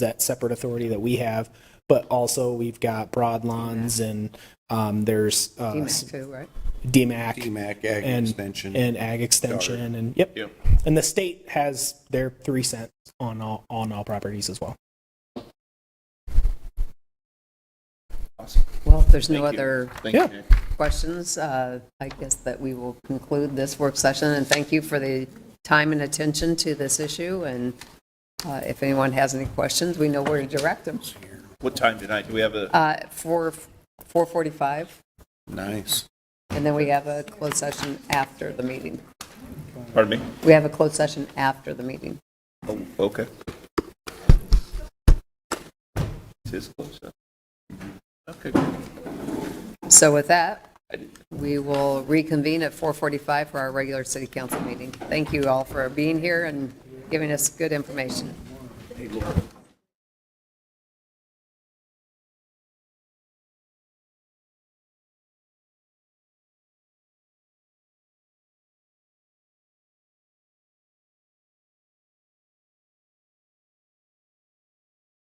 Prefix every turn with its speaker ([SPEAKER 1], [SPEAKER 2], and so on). [SPEAKER 1] that separate authority that we have. But also, we've got Broadlands and um, there's uh,
[SPEAKER 2] DMAC too, right?
[SPEAKER 1] DMAC.
[SPEAKER 3] DMAC, Ag
[SPEAKER 1] and-
[SPEAKER 3] Extension.
[SPEAKER 1] And ag extension and, yep.
[SPEAKER 3] Yep.
[SPEAKER 1] And the state has their three cents on all, on all properties as well.
[SPEAKER 2] Well, if there's no
[SPEAKER 3] Thank you.
[SPEAKER 2] other
[SPEAKER 3] Thank you.
[SPEAKER 1] Yeah.
[SPEAKER 3] Nick.
[SPEAKER 2] questions, uh, I guess that we will conclude this work session, and thank you for the time and attention to this issue, and uh, if anyone has any questions, we know where to direct them.
[SPEAKER 3] What time tonight? Do we have a?
[SPEAKER 2] Uh, 4, 4:45,
[SPEAKER 3] Nice.
[SPEAKER 2] and then we have a closed session after the meeting.
[SPEAKER 3] Pardon me?
[SPEAKER 2] We have a closed session after the meeting.
[SPEAKER 3] Oh, okay. It is close, huh? Okay.
[SPEAKER 2] So with that,
[SPEAKER 3] I did-
[SPEAKER 2] we will reconvene at 4:45 for our regular city council meeting. Thank you all for being here and giving us good information.
[SPEAKER 3] Hey, Laura.